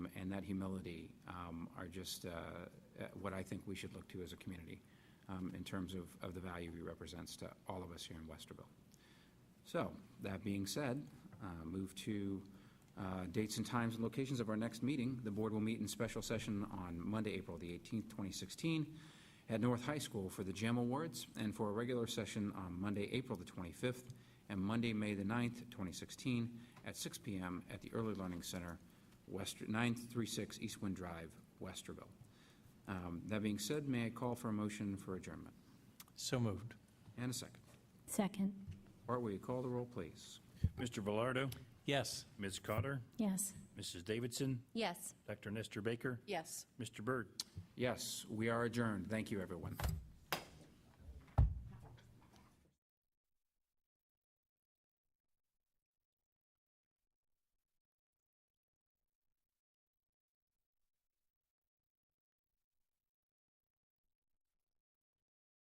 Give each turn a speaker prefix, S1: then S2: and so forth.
S1: and that humility um, are just uh, uh, what I think we should look to as a community um, in terms of, of the value he represents to all of us here in Westerville. So, that being said, uh, move to uh, dates and times and locations of our next meeting. The board will meet in special session on Monday, April the 18th, 2016, at North High School for the GEM Awards, and for a regular session on Monday, April the 25th, and Monday, May the 9th, 2016, at 6 PM at the Early Learning Center, West, 936 East Wind Drive, Westerville. Um, That being said, may I call for a motion for adjournment?
S2: So moved.
S1: And a second.
S3: Second,
S1: Art, will you call the roll, please?
S4: Mr. Velardo,
S2: Yes.
S4: Ms. Cotter,
S3: yes.
S4: Mrs. Davidson,
S5: Yes.
S4: Dr. Nestor Baker,
S5: Yes.
S4: Mr. Byrd.
S1: Yes, we are adjourned. Thank you, everyone.